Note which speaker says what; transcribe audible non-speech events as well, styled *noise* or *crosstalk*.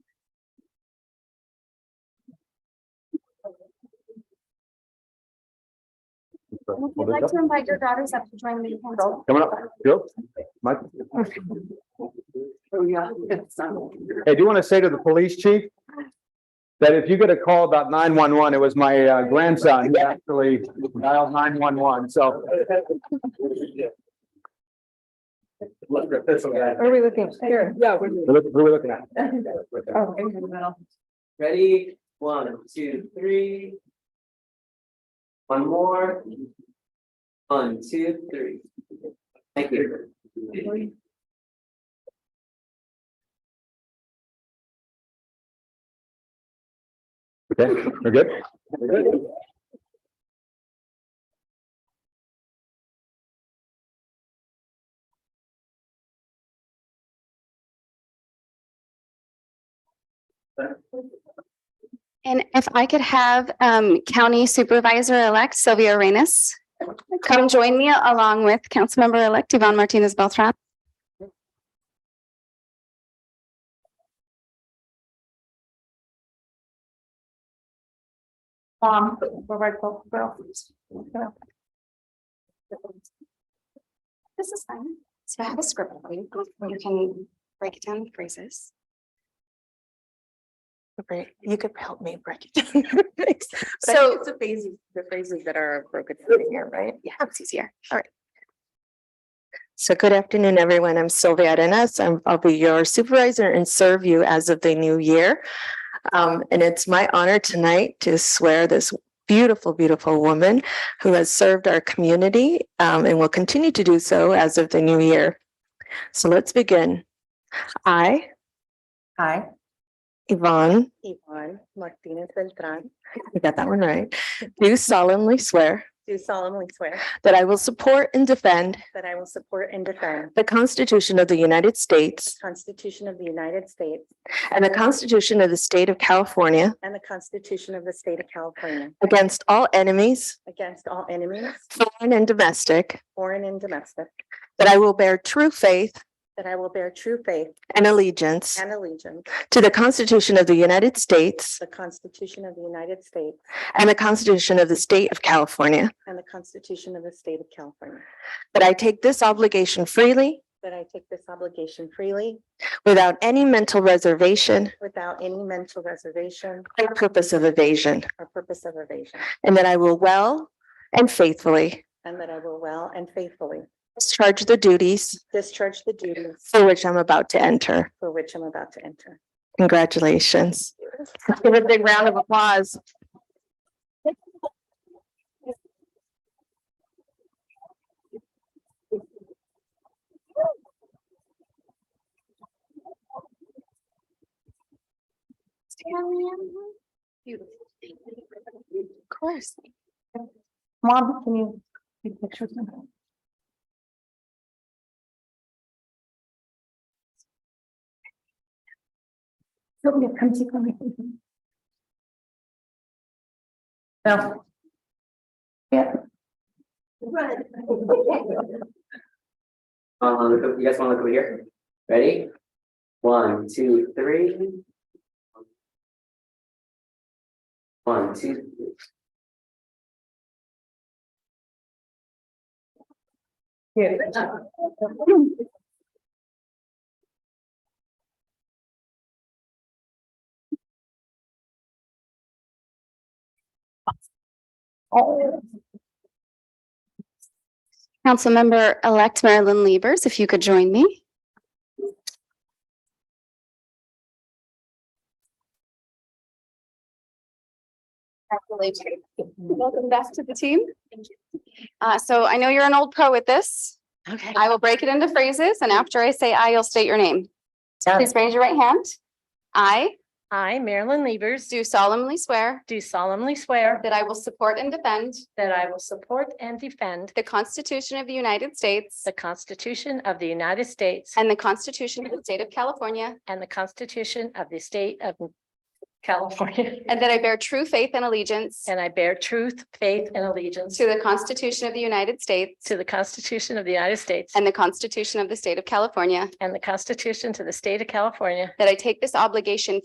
Speaker 1: And if you'd like to invite your daughters up to join me. council.
Speaker 2: Come on up, Joe. Mike.
Speaker 3: Oh, yeah. it's, um,
Speaker 2: Hey, do you want to say to the police chief? That if you get a call about nine one one, it was my uh, grandson who actually dialed nine one one, so.
Speaker 4: What are we looking here?
Speaker 3: Yeah. we're-
Speaker 2: Who are we looking at?
Speaker 4: Oh,
Speaker 3: Ready, one, two, three. One more. One, two, three. Thank you.
Speaker 2: Okay, we're good?
Speaker 3: Uh,
Speaker 1: And if I could have um, County Supervisor-elect Sylvia Reyes come join me along with Councilmember-elect Yvonne Martinez Beltran.
Speaker 4: Um, Roberto, well,
Speaker 1: This is fine. So I have a script. for You You can break it down in phrases.
Speaker 4: great. You could help me break it down. *laughs* Thanks. But I
Speaker 1: So-
Speaker 4: think It's the phases, the phrases that are broken down here, right?
Speaker 1: Yeah, it's easier.
Speaker 4: So good afternoon, everyone. I'm Sylvia Arenas. I'm, I'll be your supervisor and serve you as of the new year. Um, and it's my honor tonight to swear this beautiful, beautiful woman who has served our community, um, and will continue to do so as of the new year. So let's begin. I. I. Yvonne. Yvonne Martinez Beltran. You got that one right. Do solemnly swear
Speaker 5: Do solemnly swear
Speaker 4: that I will support and defend
Speaker 5: that I will support and defend
Speaker 4: The Constitution of the United States
Speaker 5: the Constitution of the United States
Speaker 4: and the Constitution of the State of California
Speaker 5: and the Constitution of the State of California
Speaker 4: against all enemies,
Speaker 5: against all enemies,
Speaker 4: foreign and domestic,
Speaker 5: foreign and domestic,
Speaker 4: that I will bear true faith
Speaker 5: that I will bear true faith
Speaker 4: and allegiance
Speaker 5: and allegiance to
Speaker 4: to the Constitution of the United States
Speaker 5: the Constitution of the United States
Speaker 4: and the Constitution of the State of California,
Speaker 5: and the Constitution of the State of California,
Speaker 4: that I take this obligation freely
Speaker 5: that I take this obligation freely
Speaker 4: without any mental reservation
Speaker 5: without any mental reservation
Speaker 4: or purpose of evasion,
Speaker 5: or purpose of evasion,
Speaker 4: and that I will well and faithfully
Speaker 5: and that I will well and faithfully
Speaker 4: discharge the duties
Speaker 5: discharge the duties
Speaker 4: for which I'm about to enter.
Speaker 5: for which I'm about to enter.
Speaker 4: Congratulations. Let's Give a big round of applause.
Speaker 1: Stand, Leanne. Beautiful. Of course.
Speaker 4: Mom, can you take pictures?
Speaker 3: Um, look up- you guys wanna look over here? Ready? One, two, three. One, two. three.
Speaker 1: Councilmember-elect Marilyn Liebers, if you could join me. Congratulations. Welcome back to the team. Uh, so I know you're an old pro at this.
Speaker 4: Okay.
Speaker 1: I will break it into phrases and after I say I, you'll state your name.
Speaker 4: Done.
Speaker 1: Please raise your right hand. I
Speaker 5: I, Marilyn Levers,
Speaker 1: do solemnly swear
Speaker 5: do solemnly swear
Speaker 1: that I will support and defend
Speaker 5: that I will support and defend
Speaker 1: the Constitution of the United States
Speaker 5: the Constitution of the United States
Speaker 1: and the Constitution of the State of California,
Speaker 5: and the Constitution of the State of California,
Speaker 1: and that I bear true faith and allegiance
Speaker 5: and I bear truth, faith, and allegiance
Speaker 1: to the Constitution of the United States
Speaker 5: to the Constitution of the United States
Speaker 1: and the Constitution of the State of California,
Speaker 5: and the Constitution to the State of California,
Speaker 1: that I take this obligation